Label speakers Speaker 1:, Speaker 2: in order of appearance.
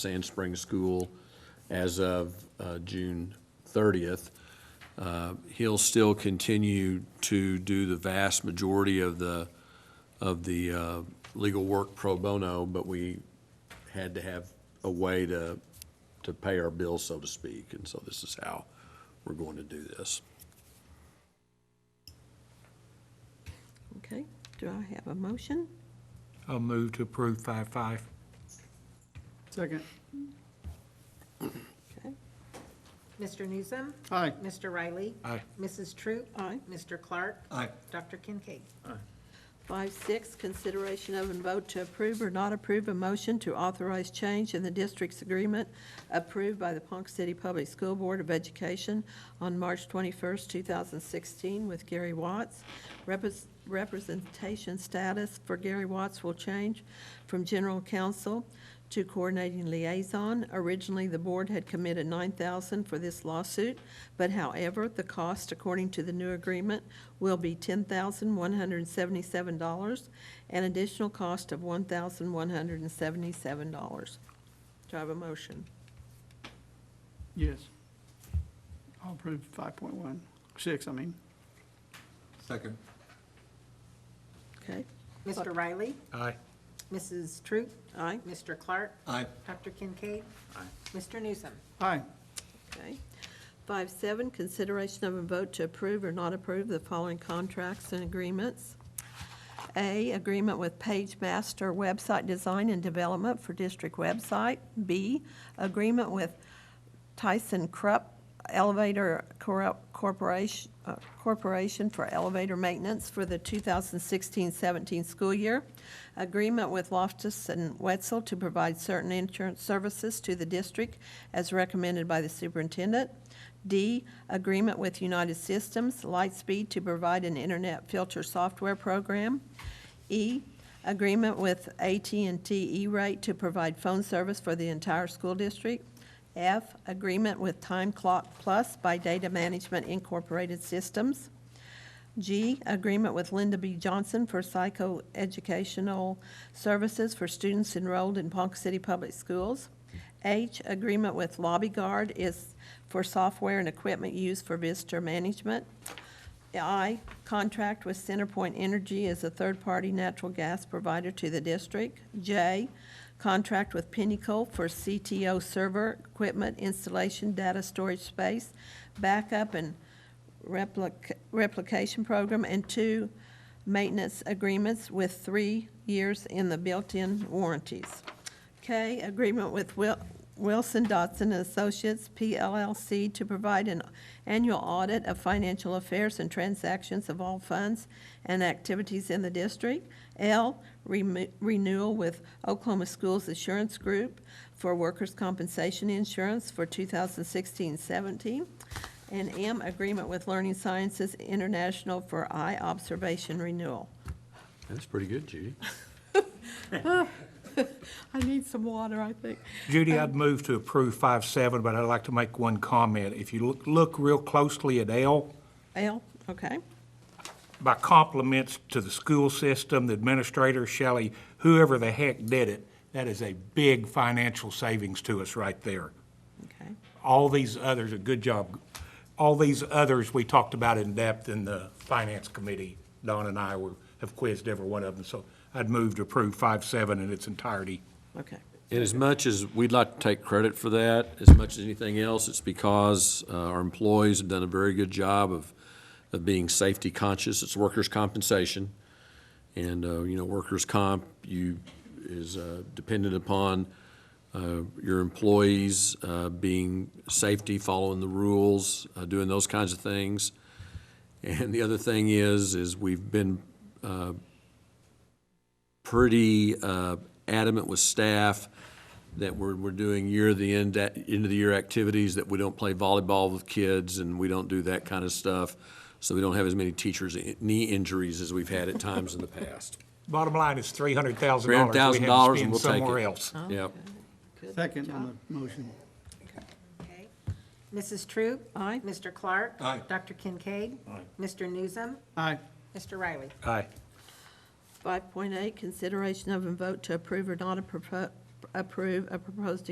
Speaker 1: Sand Spring School as of uh, June 30th. Uh, He'll still continue to do the vast majority of the, of the uh, legal work pro bono, but we had to have a way to, to pay our bills, so to speak, and so this is how we're going to do this.
Speaker 2: Okay, do I have a motion?
Speaker 3: I'll move to approve five five.
Speaker 4: Second.
Speaker 2: Okay,
Speaker 5: Mr. Newsom.
Speaker 4: Aye.
Speaker 5: Mr. Riley.
Speaker 3: Aye.
Speaker 5: Mrs. Troop.
Speaker 2: Aye.
Speaker 5: Mr. Clark.
Speaker 3: Aye.
Speaker 5: Dr. Kincaid.
Speaker 2: five, six, consideration of and vote to approve or not approve a motion to authorize change in the district's agreement approved by the Ponca City Public School Board of Education on March twenty-first, two thousand sixteen with Gary Watts. Repres- Representation status for Gary Watts will change from general counsel to coordinating liaison. Originally, the board had committed nine thousand for this lawsuit, but however, the cost, according to the new agreement, will be ten thousand one hundred and seventy-seven dollars, an additional cost of one thousand one hundred and seventy-seven dollars. Do I have a motion?
Speaker 4: Yes. I'll approve five point one, six, I mean.
Speaker 3: Second.
Speaker 2: Okay,
Speaker 5: Mr. Riley.
Speaker 3: Aye.
Speaker 5: Mrs. Troop.
Speaker 2: aye,
Speaker 5: Mr. Clark.
Speaker 3: Aye.
Speaker 5: Dr. Kincaid. Mr. Newsom.
Speaker 4: Aye.
Speaker 2: okay. Five seven, consideration of a vote to approve or not approve the following contracts and agreements. A, agreement with Page Master Website Design and Development for District Website. B, agreement with Tyson Krupp Elevator Cor- Corporation, uh, Corporation for Elevator Maintenance for the 2016-17 school year. Agreement with Loftus and Wetzel to provide certain insurance services to the district as recommended by the superintendent. D, agreement with United Systems Lightspeed to provide an internet filter software program. E, agreement with at and T E-Rate to provide phone service for the entire school district. F, agreement with Time Clock Plus by Data Management Incorporated Systems. G, agreement with Linda B. Johnson for psychoeducational services for students enrolled in Ponca City Public Schools. H, agreement with Lobby Guard is for software and equipment used for visitor management. I, contract with CenterPoint Energy as a third-party natural gas provider to the district. J, contract with Pinnacle for CTO server equipment installation, data storage space, backup and replic- replication program, and two maintenance agreements with three years in the built-in warranties. K, agreement with Wil- Wilson Dotson and Associates, PLLC, to provide an annual audit of financial affairs and transactions of all funds and activities in the district. L, remo- renewal with Oklahoma Schools Assurance Group for workers' compensation insurance for 2016-17. And M, agreement with Learning Sciences International for eye observation renewal.
Speaker 1: That's pretty good, Judy.
Speaker 2: I need some water, I think.
Speaker 3: Judy, I'd move to approve five seven, but I'd like to make one comment. If you look, look real closely at L,
Speaker 2: L, okay.
Speaker 3: by compliments to the school system, the administrator, Shelley, whoever the heck did it, that is a big financial savings to us right there.
Speaker 2: Okay,
Speaker 3: All these others, a good job. All these others we talked about in depth in the finance committee. Don and I were, have quizzed every one of them, so I'd move to approve five seven in its entirety.
Speaker 2: okay,
Speaker 1: And as much as we'd like to take credit for that, as much as anything else, it's because uh, our employees have done a very good job of, of being safety conscious. It's workers' compensation. And, uh, you know, workers' comp, you, is uh, dependent upon uh, your employees uh, being safety, following the rules, uh, doing those kinds of things. And the other thing is, is we've been pretty uh, adamant with staff that we're, we're doing year-to-end, end-of-the-year activities, that we don't play volleyball with kids, and we don't do that kind of stuff, so we don't have as many teachers' i- knee injuries as we've had at times in the past.
Speaker 3: Bottom line is three hundred thousand
Speaker 1: Three
Speaker 3: dollars.
Speaker 1: hundred thousand dollars, and we'll take it.
Speaker 3: Somewhere else.
Speaker 1: Yep.
Speaker 4: Second on the motion.
Speaker 5: Okay. Mrs. Troop.
Speaker 2: Aye.
Speaker 5: Mr. Clark.
Speaker 3: Aye.
Speaker 5: Dr. Kincaid. Aye. Mr. Newsom.
Speaker 4: Aye.
Speaker 5: Mr. Riley.
Speaker 3: Aye.
Speaker 2: 5.8, consideration of and vote to approve or not appro- approve a proposed